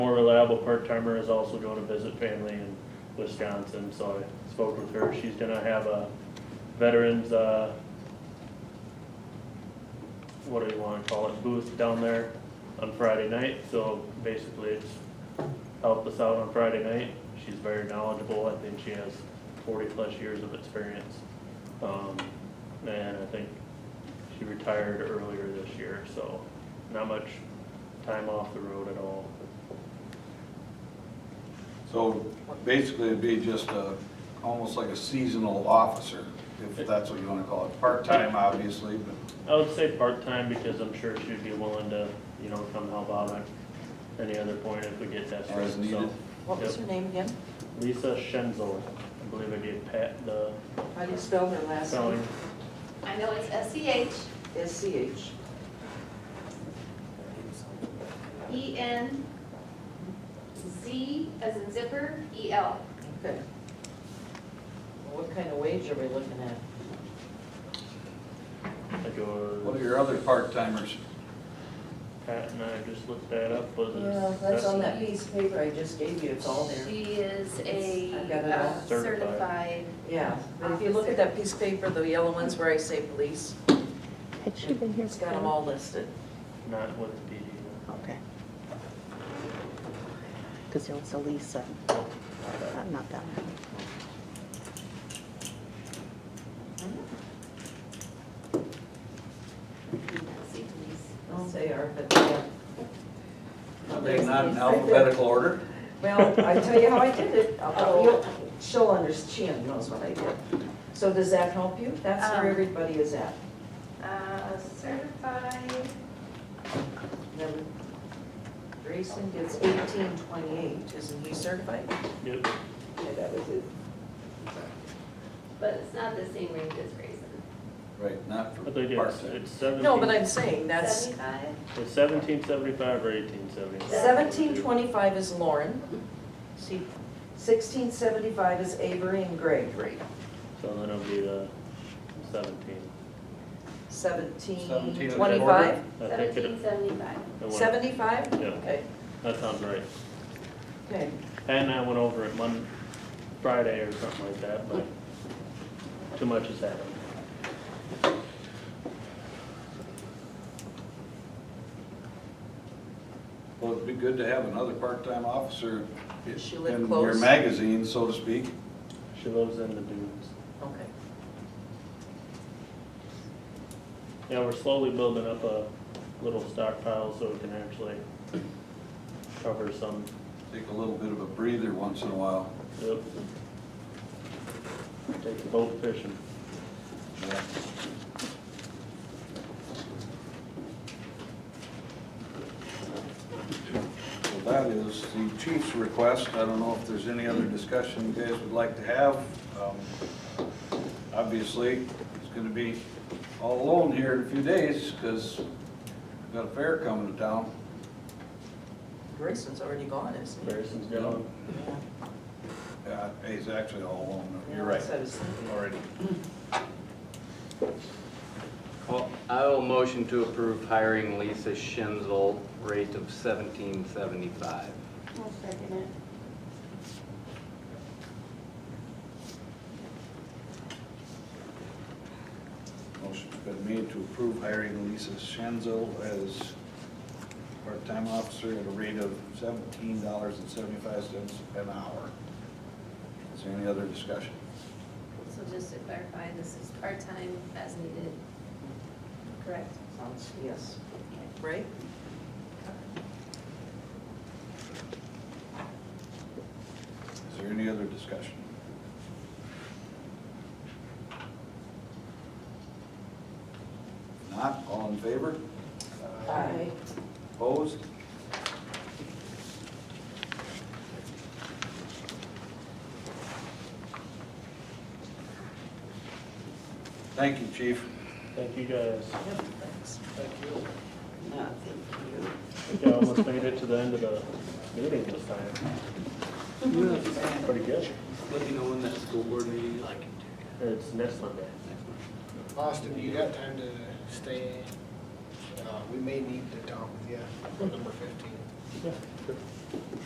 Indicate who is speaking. Speaker 1: reliable part-timer is also going to visit family in Wisconsin, so I spoke with her. She's gonna have a veterans, uh, what do you wanna call it, booth down there on Friday night, so basically it's helped us out on Friday night. She's very knowledgeable, I think she has forty-plus years of experience. Um, and I think she retired earlier this year, so not much time off the road at all.
Speaker 2: So basically, it'd be just a, almost like a seasonal officer, if that's what you want to call it. Part-time, obviously, but
Speaker 1: I would say part-time because I'm sure she'd be willing to, you know, come help out at any other point if we get that straight,
Speaker 2: As needed.
Speaker 1: so.
Speaker 3: What was her
Speaker 1: Yep.
Speaker 3: name again?
Speaker 1: Lisa Schenzel, I believe I gave Pat the
Speaker 3: How do you spell her last
Speaker 1: spelling.
Speaker 3: name?
Speaker 4: I know it's S C H
Speaker 3: S-C-H.
Speaker 4: E N Z as in zipper, E L.
Speaker 3: Okay. Well, What kind of wage are we looking at?
Speaker 1: I
Speaker 2: what are
Speaker 1: go,
Speaker 2: your other part-timers?
Speaker 1: Pat and I just looked that up, was it?
Speaker 3: Yeah, that's on that piece of paper I just gave you, it's all there.
Speaker 4: She is a
Speaker 3: I've got it all.
Speaker 4: uh, certified,
Speaker 3: Yeah, but if you look at that piece of paper, the yellow ones where I say police,
Speaker 5: Had she been here?
Speaker 3: it's got them all listed.
Speaker 1: Not with the PD.
Speaker 5: Okay. Because there was a Lisa. Uh, Not that one.
Speaker 4: Nancy Denise.
Speaker 3: I'll say are, but yeah.
Speaker 2: Are they not in alphabetical order?
Speaker 3: Well, I tell you how I did it. I'll- you'll- She'll understand, knows what I did. So does that help you? That's
Speaker 4: Um.
Speaker 3: where everybody is at.
Speaker 4: Uh, certified,
Speaker 3: Remember, Grayson gets eighteen twenty-eight, isn't he certified?
Speaker 1: Yep,
Speaker 3: Yeah, that was it.
Speaker 4: but it's not the same range as Grayson.
Speaker 2: Right, not for
Speaker 1: I think it's,
Speaker 2: part-time.
Speaker 1: it's seventeen.
Speaker 3: No, but I'm saying that's,
Speaker 4: Seventy-five?
Speaker 1: It's seventeen seventy-five or eighteen seventy-five.
Speaker 3: seventeen twenty-five is Lauren. See, sixteen seventy-five is Avery and Gregory.
Speaker 1: So then it'll be the seventeen.
Speaker 3: Seventeen
Speaker 2: 17 is
Speaker 3: twenty-five?
Speaker 1: I think it-
Speaker 4: Seventeen seventy-five.
Speaker 1: it went-
Speaker 3: Seventy-five?
Speaker 1: Yeah.
Speaker 3: Okay,
Speaker 1: That sounds right.
Speaker 3: okay.
Speaker 1: Pat and I went over it Monday, Friday or something like that, but too much has happened.
Speaker 2: Well, it'd be good to have another part-time officer
Speaker 3: She
Speaker 2: in
Speaker 3: live
Speaker 2: your
Speaker 3: close?
Speaker 2: magazine, so to speak.
Speaker 1: She lives in the dunes.
Speaker 3: Okay.
Speaker 1: Yeah, we're slowly building up a little stockpile so we can actually cover some.
Speaker 2: Take a little bit of a breather once in a while.
Speaker 1: Yep. Take the boat fishing.
Speaker 2: So that is the chief's request. I don't know if there's any other discussion you guys would like to have. Um, Obviously, he's going to be all alone here in a few days because we've got a fair coming to town.
Speaker 3: Grayson's already gone, isn't he?
Speaker 1: Harrison's gone.
Speaker 3: Yeah.
Speaker 2: Yeah, he's actually all alone. You're
Speaker 3: Yeah,
Speaker 2: right.
Speaker 3: that's what I was thinking.
Speaker 2: Already.
Speaker 6: Well, I will motion to approve hiring Lisa Schenzel, rate of seventeen seventy-five.
Speaker 4: I'll second it.
Speaker 2: Motion's been made to approve hiring Lisa Schenzel as part-time officer at a rate of seventeen dollars and seventy-five cents an hour. Is there any other discussion?
Speaker 4: So just to clarify, this is part-time as needed, correct?
Speaker 3: Sounds, yes. Right?
Speaker 2: Is there any other discussion? Not, all in favor?
Speaker 3: Aye.
Speaker 2: Opposed? Thank you, chief.
Speaker 1: Thank you guys.
Speaker 3: Yep, thanks. No, thank you.
Speaker 1: I think I almost made it to the end of the meeting this time. Pretty good.
Speaker 6: Let me know when that school board meeting is.
Speaker 1: It's next Monday.
Speaker 7: Austin, you got time to stay? Uh, we may need to talk with you on number fifteen.
Speaker 1: Yeah, sure.